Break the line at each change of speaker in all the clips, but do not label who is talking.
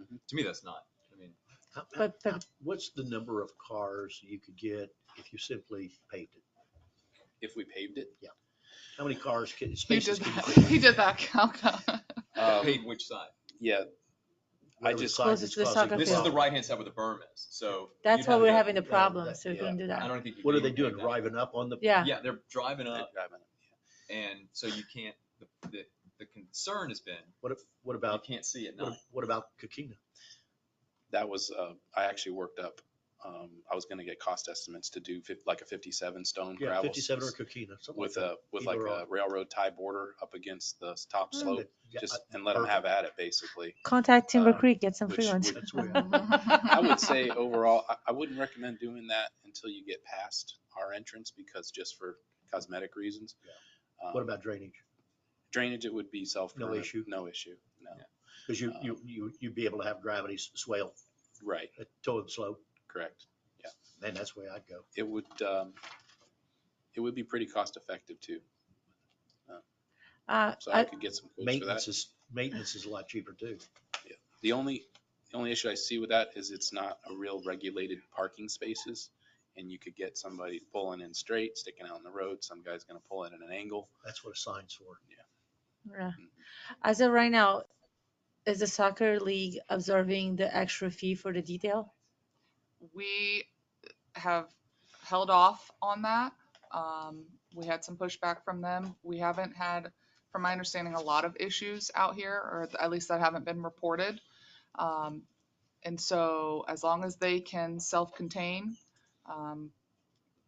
Mm-hmm.
to me, that's not, I mean,
How- how-
But the-
how- What's the number of cars you could get if you simply paved it?
if we paved it,
How many cars can,
He
spaces
did
can you
that,
put?
he did that calc.
Um,
paved which side?
Yeah, I
Whatever
just-
size
Closest
it's
to the
causing
soccer
This is the
field.
problem.
right-hand side where the berm is, so.
That's
you'd
why
have
we're
to-
having a
yeah,
problem,
that-
so we
yeah.
couldn't do
I
that.
don't think. you
What are
could
they
even
doing,
uh,
pave that.
driving up on the?
Yeah,
Yeah, they're driving up
I
and so you can't, the, the, the concern has been,
What, if- what
you
about,
can't see at
what
night.
if- what about Coquina?
that was, uh, I actually worked up, um, I was gonna get cost estimates to do fif- like a fifty-seven stone
Yeah,
gravel.
fifty-seven or
s-
Coquina, something like
With
that.
a, with like
either Mm,
a railroad tie border up against the s- top
Hmm.
slope,
Yeah,
just, and let them have at it, basically.
contact Timber
uh,
Creek, get some
which
free ones.
would-
That's where.
I would say overall, I, I wouldn't recommend doing that until you get past our entrance because just for cosmetic reasons. Um,
What about drainage?
Drainage, it would be self.
issue?
No issue, no.
Yeah.
Because you,
Uh,
you, you, you'd be able to have gravity s- swale,
Right,
uh, toe and slope,
correct.
then that's where I'd go.
It would, um, it would be pretty cost effective too.
Uh,
So I
I,
could get some quotes for that.
Maintenance is, maintenance is a lot cheaper too.
The only, the only issue I see with that is it's not a real regulated parking spaces. And you could get somebody pulling in straight, sticking out in the road. Some guy's gonna pull in at an angle.
That's what a sign's for.
yeah. as of right now, is the soccer league absorbing the extra fee for the detail?
We have held off on that. Um, we had some pushback from them. We haven't had, from my understanding, a lot of issues out here, or at least that haven't been reported. Um, and so as long as they can self-contain, um,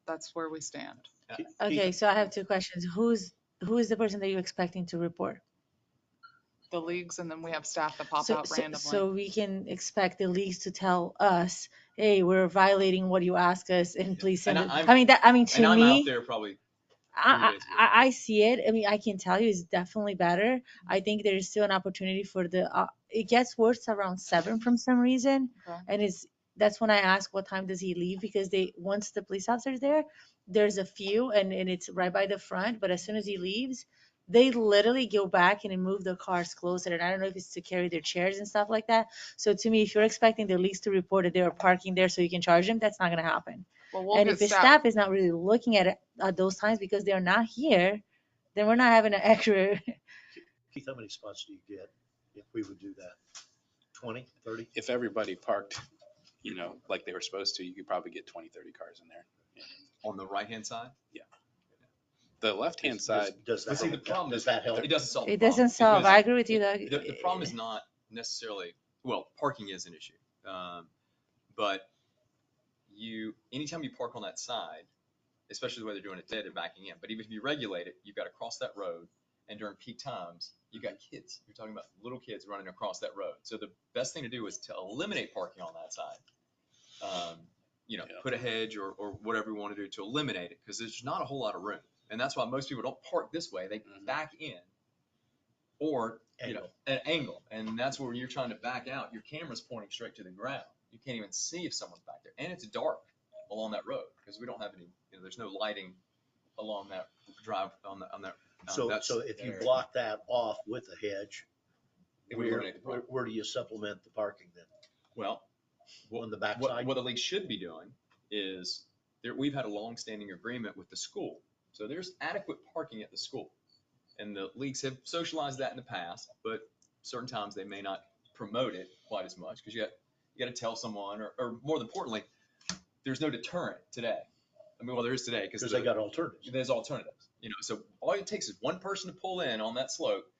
that's where we stand.
Keith-
Okay, so I have two questions. Who's, who is the person that you're expecting to report?
The leagues, and then we have staff that pop
So-
out
so-
randomly.
So we can expect the leagues to tell us, hey, we're violating what you ask us and please send
And
it.
I- I'm-
I mean, that, I mean,
And
to
I'm out
me,
there probably
I,
days
I, I- I see it. I mean, I can tell you it's definitely better. I think there is still an opportunity for the, uh, it gets worse around seven from some reason.
Okay.
And it's, that's when I ask what time does he leave? Because they, once the police officer is there, there's a few and, and it's right by the front, but as soon as he leaves, they literally go back and move the cars closer. And I don't know if it's to carry their chairs and stuff like that. So to me, if you're expecting the leagues to report that they are parking there so you can charge them, that's not gonna happen.
Well, we'll
And
get
if the
staff.
staff is not really looking at it at those times because they're not here, then we're not having an accurate.
Keith, how many spots do you get if we would do that? Twenty, thirty?
If everybody parked, you know, like they were supposed to, you could probably get 20, 30 cars in there.
on the right-hand side.
The left-hand
Does-
side,
Does
But
that,
see, the problem
help? does
is-
that help?
It doesn't solve. the
It
problem,
doesn't solve.
because
I agree with you, Doug.
The, the problem is not necessarily, well, parking is an issue. Um, but you, anytime you park on that side, especially the way they're doing it today, they're backing in. But even if you regulate it, you've got to cross that road. And during peak times, you've got kids. You're talking about little kids running across that road. So the best thing to do is to eliminate parking on that side. Um, you know,
Yeah.
put a hedge or, or whatever you want to do to eliminate it because there's not a whole lot of room. And that's why most people don't park this way. They
Mhm.
back in or you know,
Angle.
an angle, and that's where you're trying to back out. Your camera's pointing straight to the ground. You can't even see if someone's back there, and it's dark along that road because we don't have any. You know, there's no lighting along that drive on the on that. um,
So,
that's-
so if you
area.
block that off with a hedge,
It would
where,
eliminate the
where,
problem.
where do you supplement the parking then?
Well, Well,
On the
what,
backside?
what the league should be doing is there, we've had a long-standing agreement with the school. So there's adequate parking at the school. And the leagues have socialized that in the past, but certain times they may not promote it quite as much because you got, you got to tell someone or, or more importantly, there's no deterrent today. I mean, well, there is today because
Because they got alternatives.
there's alternatives, you know, so all it takes is one person to pull in on that slope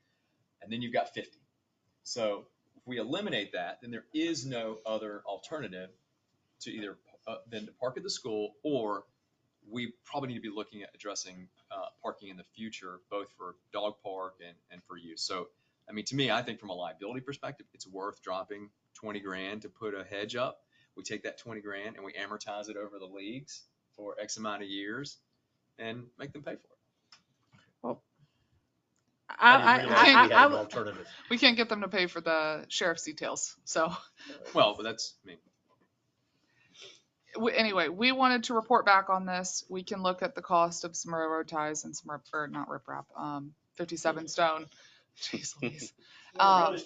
and then you've got 50. So if we eliminate that, then there is no other alternative to either, uh, than to park at the school or we probably need to be looking at addressing, uh, parking in the future, both for dog park and, and for use. So, I mean, to me, I think from a liability perspective, it's worth dropping 20 grand to put a hedge up. We take that 20 grand and we amortize it over the leagues for X amount of years and make them pay for it.
I,
I
I,
didn't realize we
I,
had
I,
an
would-
alternative.
We can't get them to pay for the sheriff's details, so.
Well, but that's, I mean,
we- anyway, we wanted to report back on this. We can look at the cost of some railroad ties and some, rip- or not riprap, um, fifty-seven stone. Jeez Louise. Um,